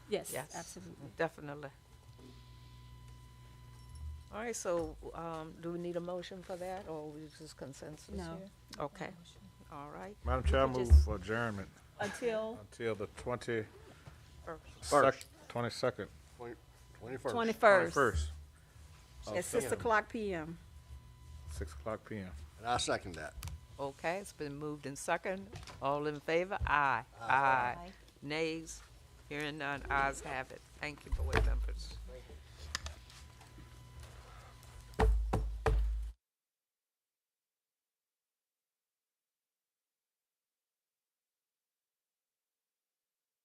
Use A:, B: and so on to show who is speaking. A: Yes,
B: Yes.
A: absolutely.
B: Definitely. All right, so, um, do we need a motion for that, or we just consensus here?
A: No.
B: Okay, all right.
C: Madam Chair, I
B: could
C: move
B: just-
C: for adjournment
A: Until
C: until the twenty,
B: First.
C: twenty-second.
D: Twenty-first.
A: twenty-first.
C: First,
A: At six o'clock PM.
C: six o'clock PM.
D: And I second that.
B: Okay, it's been moved in second. All in favor? Aye. Aye. Nays? Hearing none, ayes have it. Thank you, board members.